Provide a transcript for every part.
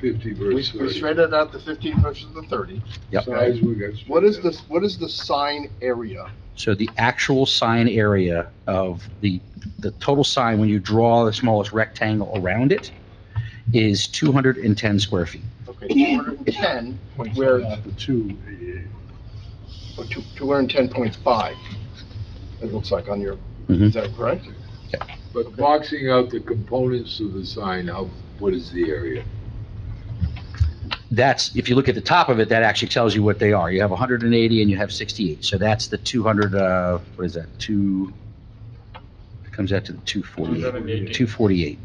fifty We, versus we thirty. straightened out the fifteen versus the thirty. Yep. Size we got. What is the, what is the sign area? So the actual sign area of the, the total sign, when you draw the smallest rectangle around it, is 210 square feet. Okay, two hundred and ten, where, Not The two, eh, or two, two hundred and ten point five, it looks like on your, Mhm. is that correct? but boxing out the components of the sign, how, what is the area? That's, if you look at the top of it, that actually tells you what they are. You have 180 and you have 68. So that's the 200, uh, what is that, 2, it comes out to the 248. 248,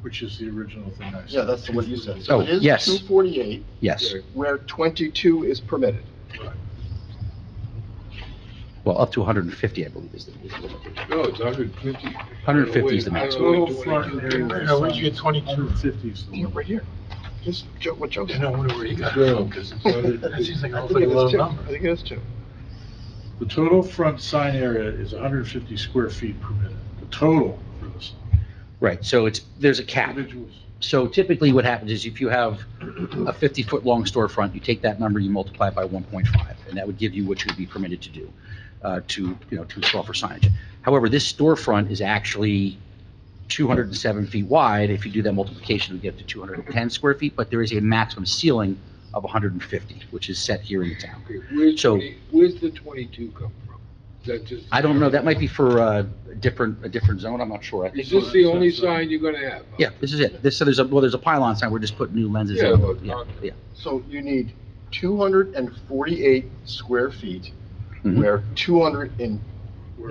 Which is the original thing I said. Yeah, that's what you said. Oh, So it is yes. Two forty-eight, yes. where twenty-two is permitted. Well, up to 150, I believe is the, No, it's hundred fifty. 150 is the maximum. Total front area. Yeah, where'd you get 22? Fifties. Yeah, right here. This, Joe, what Joe You said. know, wonder where you got it Well, from, 'cause it's- that seems like an I think awfully it low is two. number. I think it is two. The total front sign area is hundred and fifty square feet permitted, the total for this. Right, so it's, there's a cap. Individuals. So typically what happens is if you have a 50-foot long storefront, you take that number, you multiply it by 1.5, and that would give you what you'd be permitted to do, uh, to, you know, to install for signage. However, this storefront is actually 207 feet wide. If you do that multiplication, you get to 210 square feet, but there is a maximum ceiling of 150, which is set here in the town. Okay, Where's So- twenty, where's the twenty-two come from? Is that just? I don't know, that might be for uh, a different, a different zone, I'm not sure. I think- Is this the only sign you're gonna have? Yeah, this is it. This, so there's a, well, there's a pylon sign, we're just putting new lenses in. Yeah, but- Yeah, yeah. So you need two hundred and forty-eight square feet, Mhm. where two hundred and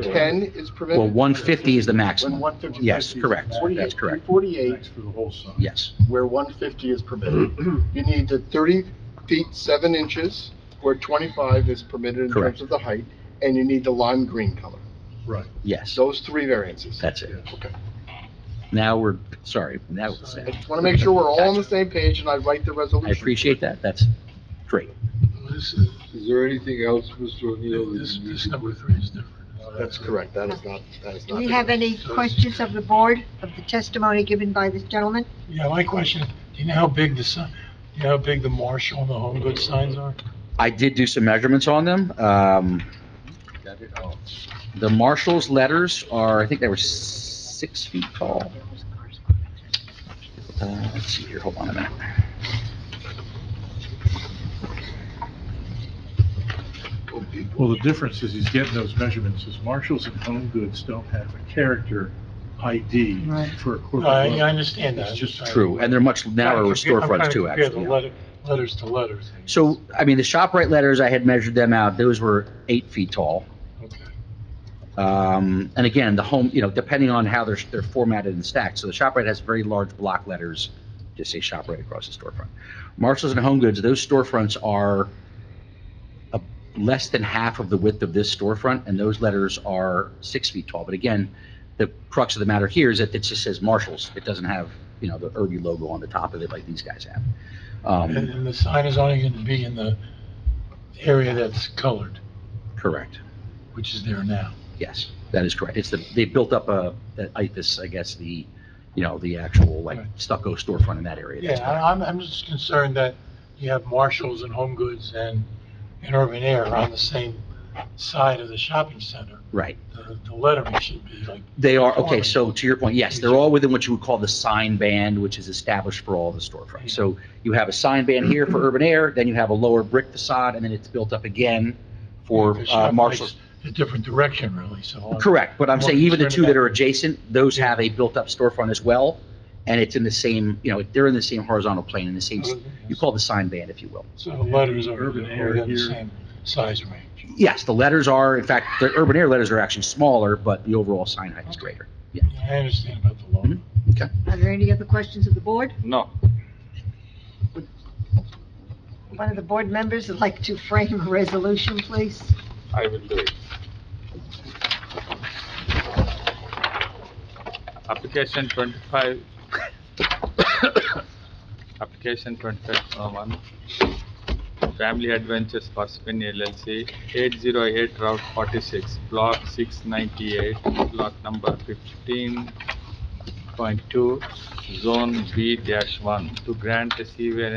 ten is permitted. Well, 150 is the And maximum. 150. Yes, correct. That's correct. 48, Thanks for the whole sign. Yes. where 150 is permitted. Mm-hmm. You need the 30 feet 7 inches, where 25 is permitted in Correct. terms of the height, and you need the lime green color. Right. Yes. Those three variances. That's it. Okay. Now we're, sorry, now it's I sad. just want to make sure we're all on the same page and I write the I resolution. appreciate that. That's great. This is, Is there anything else, Mr. O'Neill? that this, you this need to number three is different. Uh, That's correct. That is not, that is Do not. we have any questions of the board, of the testimony given by this gentleman? Yeah, my question, is, do you know how big the sign, you know how big the Marshall and the Home Goods signs are? I did do some measurements on them. Um, The Marshall's letters are, I think they were six feet tall. Uh, Let's see here, hold on a minute. Well, the difference is he's getting those measurements, is Marshalls and Home Goods don't have a character ID for a corporate. No, I, I logo. understand that. It's just True, and they're much narrower storefronts too, I'm trying to compare actually. the letter, letters to letters. So, I mean, the ShopRite letters, I had measured them out. Those were eight feet tall. Okay. Um, and again, the home, you know, depending on how they're, they're formatted and stacked. So the ShopRite has very large block letters, just say ShopRite across the storefront. Marshalls and Home Goods, those storefronts are a, less than half of the width of this storefront, and those letters are six feet tall. But again, the crux of the matter here is that it just says Marshalls. It doesn't have, you know, the Irby logo on the top of it like these guys have. And, Um, and the sign is only gonna be in the area that's colored, correct. which is there now. Yes, that is correct. It's the, they built up a, that IFAS, I guess, the, you know, the actual like Right. stucco storefront in that area. That's Yeah, I- I'm, I'm just concerned that you have Marshalls and Home Goods and, and Urban Air on the same side of the shopping center. Right. The, the lettering should be like, They are, okay, Conforming. so to your point, yes, they're all within what you would call the sign band, which is established for all the storefronts. So you have a sign band here for urban air, then you have a lower brick facade, and then it's built up again for the uh, shop Marshall's. makes a different direction really, so. I'm- Correct, but I'm more saying even the two concerned that are about- adjacent, those have a built-up storefront as well, and it's in the same, you know, they're in the same horizontal plane, in the same, you call it the sign band, if you will. So the letters are, Urban are Air in the here. same size range. Yes, the letters are, in fact, the urban air letters are actually smaller, but the overall sign height is Okay. greater. I understand about the logo. Mhm. Are there any other questions of the board? No. One of the board members would like to frame a resolution, please. I will do it. Application twenty-five. Application twenty-five one. Family Adventures Parsippany LLC, eight zero eight Route forty-six, block six ninety-eight, block number fifteen, point two, zone B dash one, to grant a C variance